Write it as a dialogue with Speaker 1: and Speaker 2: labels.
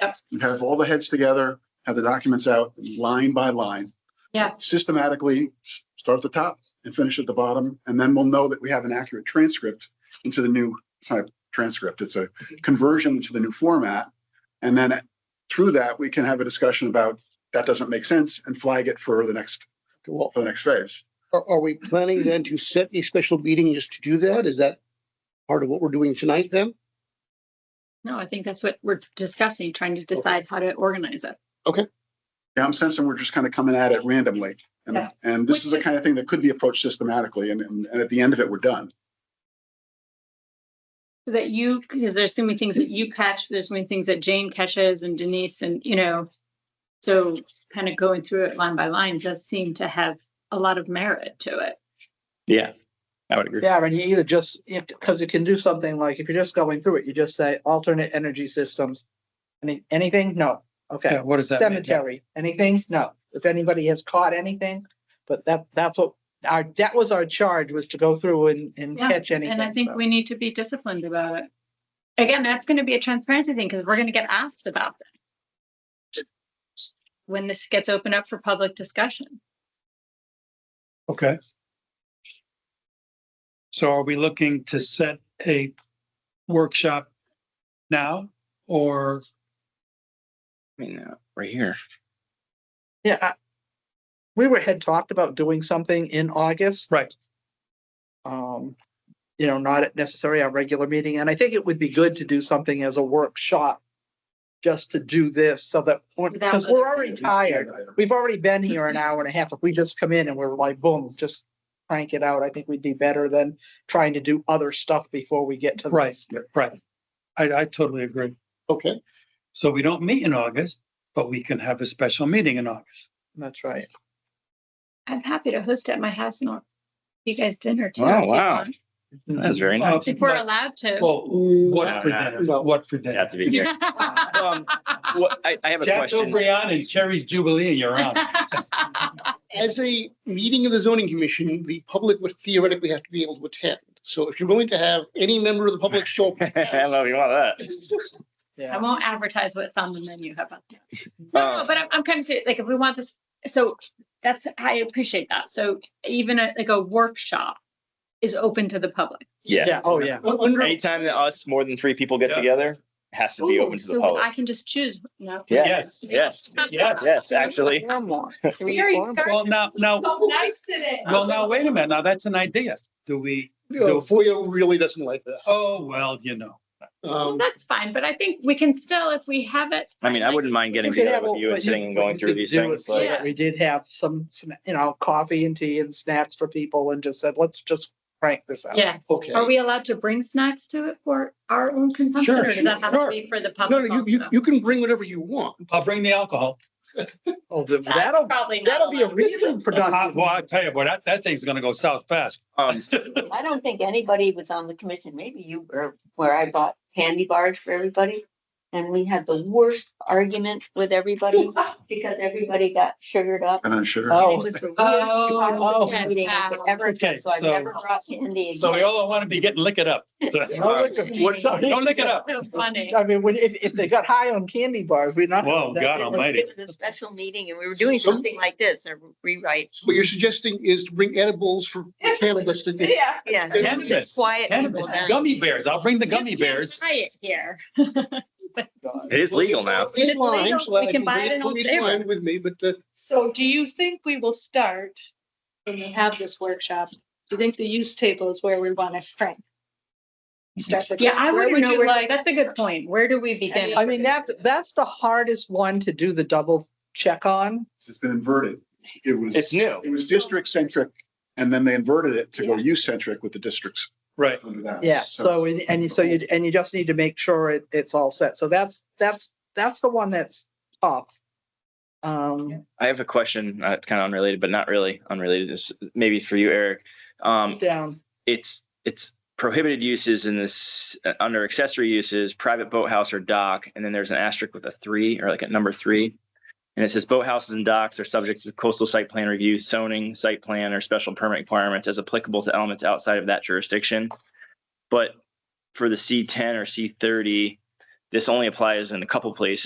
Speaker 1: Yep.
Speaker 2: You have all the heads together, have the documents out line by line.
Speaker 1: Yeah.
Speaker 2: Systematically, s- start at the top and finish at the bottom, and then we'll know that we have an accurate transcript into the new, it's not a transcript, it's a conversion to the new format. And then through that, we can have a discussion about that doesn't make sense and flag it for the next,
Speaker 3: Well,
Speaker 2: for the next phase.
Speaker 3: are, are we planning then to set a special meeting just to do that? Is that part of what we're doing tonight then?
Speaker 1: No, I think that's what we're discussing, trying to decide how to organize it.
Speaker 2: Yeah, I'm sensing we're just kind of coming at it randomly. And,
Speaker 1: Yeah.
Speaker 2: and this is the
Speaker 1: Which is-
Speaker 2: kind of thing that could be approached systematically and, and and at the end of it, we're done.
Speaker 1: So that you, because there's so many things that you catch, there's so many things that Jane catches and Denise and, you know. So kind of going through it line by line does seem to have a lot of merit to it.
Speaker 4: Yeah, I would agree.
Speaker 5: Yeah, and you either just, because it can do something like, if you're just going through it, you just say alternate energy systems. Any, anything? No. Okay.
Speaker 6: Yeah, what does that mean? Yeah.
Speaker 5: Cemetery, anything? No. If anybody has caught anything, but that, that's what our, that was our charge was to go through and, and
Speaker 1: Yeah,
Speaker 5: catch anything.
Speaker 1: And I think
Speaker 5: so.
Speaker 1: we need to be disciplined about it. Again, that's going to be a transparency thing because we're going to get asked about that. When this gets opened up for public discussion.
Speaker 6: Okay. So are we looking to set a workshop now or
Speaker 4: I mean, uh, right here.
Speaker 5: Yeah. I- We were, had talked about doing something in August.
Speaker 6: Right.
Speaker 5: Um, you know, not necessarily our regular meeting, and I think it would be good to do something as a workshop. Just to do this so that,
Speaker 1: Without
Speaker 5: because we're
Speaker 1: other
Speaker 5: already tired. We've already been here an hour and a half. If we just come in and we're like, boom, just crank it out, I think we'd be better than trying to do other stuff before we get to.
Speaker 6: Right.
Speaker 5: this.
Speaker 6: right? I, I totally agree.
Speaker 3: Okay,
Speaker 6: So we don't meet in August, but we can have a special meeting in August.
Speaker 5: That's right.
Speaker 1: I'm happy to host at my house and I'll- you guys dinner too.
Speaker 4: Oh,
Speaker 1: if you
Speaker 4: wow.
Speaker 1: want.
Speaker 4: That's very
Speaker 6: Uh,
Speaker 4: nice.
Speaker 1: If we're
Speaker 6: Right.
Speaker 1: allowed to.
Speaker 6: Well, what for
Speaker 4: No, no,
Speaker 6: dinner?
Speaker 3: no.
Speaker 6: What for
Speaker 4: You
Speaker 6: dinner?
Speaker 4: have to be here.
Speaker 6: Um,
Speaker 4: Well, I, I have a
Speaker 6: Jack
Speaker 4: question.
Speaker 6: O'Brien and Cherry's Jubilee and you're on.
Speaker 3: as a meeting of the zoning commission, the public would theoretically have to be able to attend. So if you're willing to have any member of the public show up.
Speaker 4: I love you. want that.
Speaker 1: I
Speaker 5: Yeah.
Speaker 1: won't advertise what's on the menu. How about that? No, no,
Speaker 4: Uh,
Speaker 1: but I'm, I'm kind of serious. Like if we want this, so that's, I appreciate that. So even a- like a workshop is open to the public.
Speaker 4: Yes.
Speaker 5: Yeah, oh, yeah.
Speaker 3: Under,
Speaker 4: Anytime that us more than three people get
Speaker 6: Yeah.
Speaker 4: together, it has to be open to
Speaker 1: Ooh,
Speaker 4: the
Speaker 1: so I
Speaker 4: public.
Speaker 1: can just choose. No.
Speaker 4: Yeah.
Speaker 6: Yes,
Speaker 4: Yes,
Speaker 6: yes.
Speaker 4: yes, actually.
Speaker 5: One more. Three,
Speaker 1: Very
Speaker 5: four more.
Speaker 1: dark.
Speaker 6: Well, now, now,
Speaker 1: So nice today.
Speaker 6: well, now, wait a minute. Now that's an idea. Do we,
Speaker 3: you know, FOIA really doesn't like that.
Speaker 6: oh, well, you know.
Speaker 1: Well,
Speaker 3: Um,
Speaker 1: That's fine, but I think we can still, if we have it.
Speaker 4: I mean, I wouldn't mind getting
Speaker 5: We could
Speaker 4: together
Speaker 5: have
Speaker 4: with
Speaker 5: a-
Speaker 4: you and
Speaker 5: what
Speaker 4: sitting and going
Speaker 5: what
Speaker 4: through
Speaker 5: could
Speaker 4: these
Speaker 5: do
Speaker 4: things.
Speaker 5: is so
Speaker 4: like-
Speaker 5: that We did have some, sna- you know, coffee and tea and snacks for people and just said, let's just crank this out.
Speaker 1: Yeah.
Speaker 3: okay.
Speaker 1: Are we allowed to bring snacks to it for our own consumption?
Speaker 6: Sure,
Speaker 1: Or does that have to
Speaker 6: sure,
Speaker 1: be for the
Speaker 3: No,
Speaker 1: public
Speaker 3: no, you, you,
Speaker 1: also?
Speaker 3: you can bring whatever you want.
Speaker 6: I'll bring the alcohol.
Speaker 5: Oh, th-
Speaker 1: That's
Speaker 5: that'll,
Speaker 1: probably not
Speaker 5: that'll be a
Speaker 1: allowed.
Speaker 5: really
Speaker 6: Uh,
Speaker 5: productive.
Speaker 6: Well, I tell you, boy, that, that thing's gonna go south fast.
Speaker 4: Um,
Speaker 7: I don't think anybody was on the commission, maybe you were, where I bought candy bars for everybody. And we had the worst argument with everybody because everybody got sugared up.
Speaker 2: And I'm sure.
Speaker 7: And
Speaker 5: Oh.
Speaker 7: It was the worst
Speaker 1: Oh,
Speaker 7: toxic meeting I could
Speaker 1: yes.
Speaker 7: ever
Speaker 6: Okay,
Speaker 7: do, so I've
Speaker 6: so-
Speaker 7: never brought candy
Speaker 6: So we
Speaker 7: again.
Speaker 6: all want to be getting lick it up. So-
Speaker 5: No liquor.
Speaker 1: What-
Speaker 6: Don't lick it "Oh, up.
Speaker 1: So funny.
Speaker 5: I mean, when, if, if they got high on candy bars, we're not.
Speaker 6: Whoa, God almighty.
Speaker 7: It was a special meeting and we were doing
Speaker 3: So-
Speaker 7: something like this, a rewrite.
Speaker 3: So what you're suggesting is to bring edibles for cannabis to get.
Speaker 7: Yeah.
Speaker 6: Cannabis,
Speaker 7: Quiet people
Speaker 6: Cannabis,
Speaker 7: down.
Speaker 6: gummy bears. I'll bring the gummy
Speaker 1: Just
Speaker 6: bears.
Speaker 1: buy it Here.
Speaker 4: It is legal now.
Speaker 1: It's
Speaker 3: This
Speaker 1: legal.
Speaker 3: line, so I
Speaker 1: We can
Speaker 3: can
Speaker 1: buy it
Speaker 3: bring
Speaker 1: in
Speaker 3: it
Speaker 1: Old
Speaker 3: from East
Speaker 1: Saybrook.
Speaker 3: Line with me, but uh, the.
Speaker 8: So do you think we will start, when we have this workshop, do you think the use table is where we want to crank? Start with-
Speaker 1: Yeah, I
Speaker 8: Where
Speaker 1: wouldn't
Speaker 8: would
Speaker 1: know
Speaker 8: you
Speaker 1: where,
Speaker 8: like-
Speaker 1: that's a good point. Where do we begin?
Speaker 5: I mean, that's, that's the hardest one to do the double check on.
Speaker 2: It's been inverted. It was,
Speaker 4: It's
Speaker 2: it
Speaker 4: new.
Speaker 2: was district centric and then they inverted it to go U centric with the districts.
Speaker 6: Right.
Speaker 2: under that.
Speaker 5: Yeah, so, and, and you- so you, and you just need to make sure it, it's all set. So that's, that's, that's the one that's tough. Um,
Speaker 4: I have a question. Uh, it's kind of unrelated, but not really unrelated. This maybe for you, Eric. Um,
Speaker 5: down,
Speaker 4: it's it's prohibited uses in this uh, under accessory uses private boathouse or dock and then there's an asterisk with a three or like a number three and it says boathouses and docks are subject to coastal site plan review zoning site plan or special permit requirements as applicable to elements outside of that jurisdiction but for the c10 or c30 this only applies in a couple places